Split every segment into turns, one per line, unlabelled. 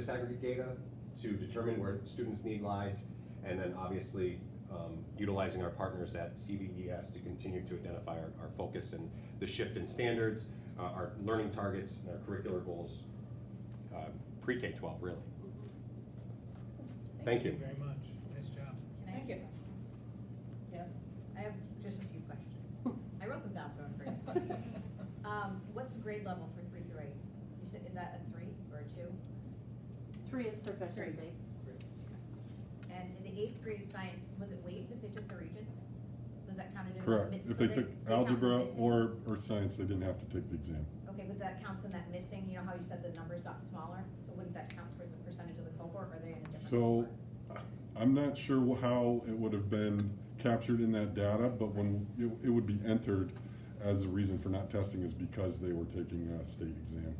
disaggregate data to determine where students' need lies, and then obviously um, utilizing our partners at CVES to continue to identify our, our focus and the shift in standards, uh, our learning targets, and our curricular goals, uh, pre-K twelve, really. Thank you.
very much. Nice job.
Can I ask
Thank you.
you a question?
Yes.
I have just a few questions. I wrote them down, so I'm great. Um, what's grade level for three through eight? You said, is that a three or a two?
Three is proficiency.
And in the eighth grade science, was it waived if they took the regents? Was that counted in? that
Correct,
mi- so
if they
they-
took
they count the
algebra
missing-
or, or science, they didn't have to take the exam.
Okay, but that counts in that missing, you know how you said the numbers got smaller? So wouldn't that count towards a percentage of the cohort, or are they in a different
So,
cohort?
I'm not sure wh- how it would have been captured in that data, but when, it, it would be entered as a reason for not testing is because they were taking a state exam.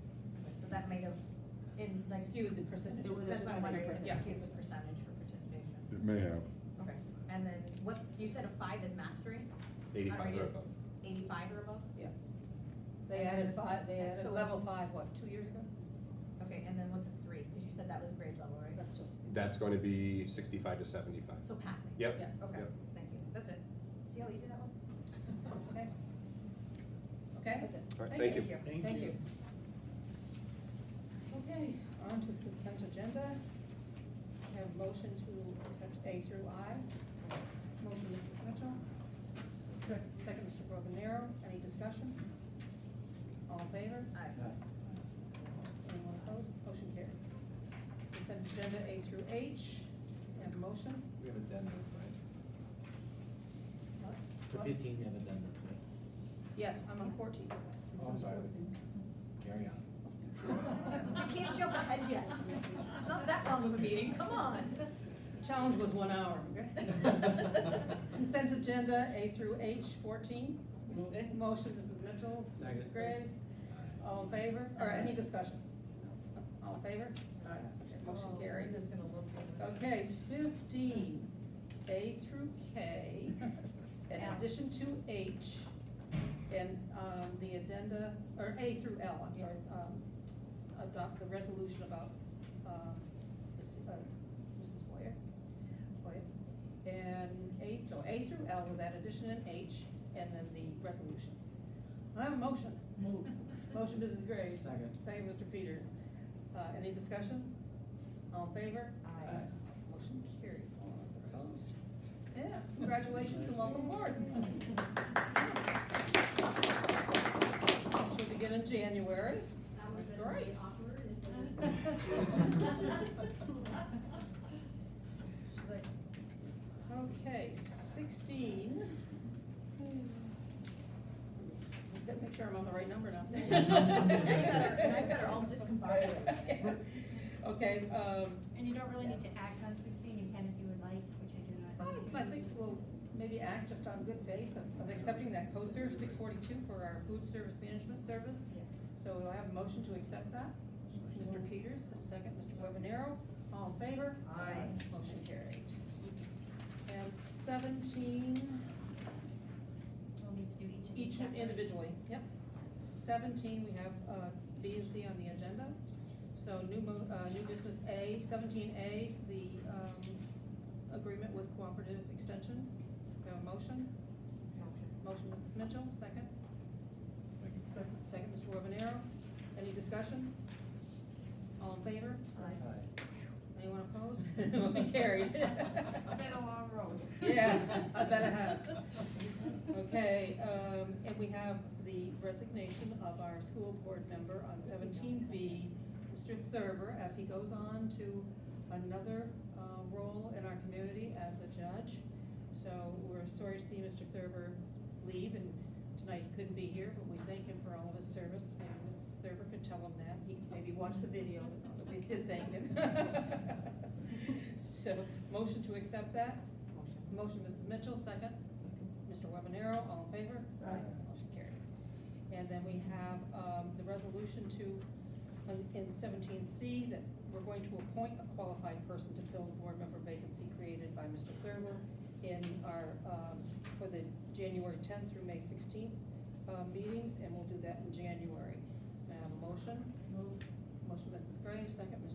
So that might have, in like,
Skewed the percentage.
It would
that's what I'm wondering, if
Yeah.
it skewed the percentage for participation.
It may have.
Okay,
Mm-hmm.
and then what, you said a five is mastery?
Eighty-five or
Unrated.
above.
Eighty-five or above?
They added five, they added
So
level
it's-
five, what, two years ago?
Okay, and then what's a three? Because you said that was grade level, right?
That's two.
That's going to be sixty-five to seventy-five.
So passing?
Yep.
Yeah.
Okay,
Yep.
thank you. That's it. See how easy that was?
Okay. Okay?
That's it.
All right, thank you.
Thank you. Okay, on to the consent agenda. We have motion to accept A through I. Motion, Mr. Mitchell. Second, Mr. Broganero. Any discussion? All in favor?
Aye.
Anyone opposed? Motion carried. Consent agenda A through H. We have a motion.
We have addendums, right?
What?
For
What?
fifteen, we have addendums, right?
Yes, I'm on fourteen.
Oh, I'm sorry. Carry on.
You can't jump ahead yet. It's not that long of a meeting, come on.
Challenge was one hour. Consent agenda A through H, fourteen. Motion, Mrs. Mitchell, Mrs.
Second.
Graves. All in favor, or any discussion? All in favor? Okay, Motion carried.
Linda's gonna look. over.
Okay, fifteen, A through K, in addition to H, and, um, the addenda, or A through L, I'm sorry,
Yes.
um, adopt the resolution about, um, this- uh, Mrs. Boyer, Boyer. And A, so A through L with that addition in H, and then the resolution. I have a motion.
Move.
Motion, Mrs. Graves.
Second.
Second, Mr. Peters. Uh, any discussion? All in favor?
Aye.
Motion carried. All those opposed? Yes, congratulations and welcome aboard. She'll begin in January.
That would have
That's great.
been really awkward if it was.
She's like,
Okay, sixteen. Gotta make sure I'm on the right number now.
Now you better- now you better all discombobulate.
Okay, um,
And you don't really need to
Yes.
act on sixteen, you can if you would like, which I do not.
I- I think we'll maybe act just on good faith of- of accepting that COSER six forty-two for our food service management service.
Yes.
So do I have a motion to accept that? Mr. Peters, second, Mr. Webanero, all in favor?
Aye.
Motion carried. And seventeen,
We'll need to do each of these.
each
separate.
individually, yep. Seventeen, we have uh, B and C on the agenda. So new mo, uh, new business A, seventeen A, the um, agreement with cooperative extension. Do I have a motion?
motion.
Motion, Mrs. Mitchell, second. Second, Mr. Webanero. Any discussion? All in favor?
Aye.
Anyone opposed? Motion carried.
It's been a long road.
Yeah, I bet it has. Okay, um, and we have the resignation of our school board member on seventeen B, Mr. Thurber, as he goes on to another, uh, role in our community as a judge. So we're sorry to see Mr. Thurber leave, and tonight he couldn't be here, but we thank him for all of his service. Maybe Mrs. Thurber could tell him that, he maybe watched the video, but we did thank him. So, motion to accept that? Motion, Mrs. Mitchell, second. Mr. Webanero, all in favor?
Aye.
Motion carried. And then we have um, the resolution to, on- in seventeen C, that we're going to appoint a qualified person to fill the board member vacancy created by Mr. Thurber in our, um, for the January tenth through May sixteenth um, meetings, and we'll do that in January. May I have a motion? Motion, Mrs. Graves, second, Mr.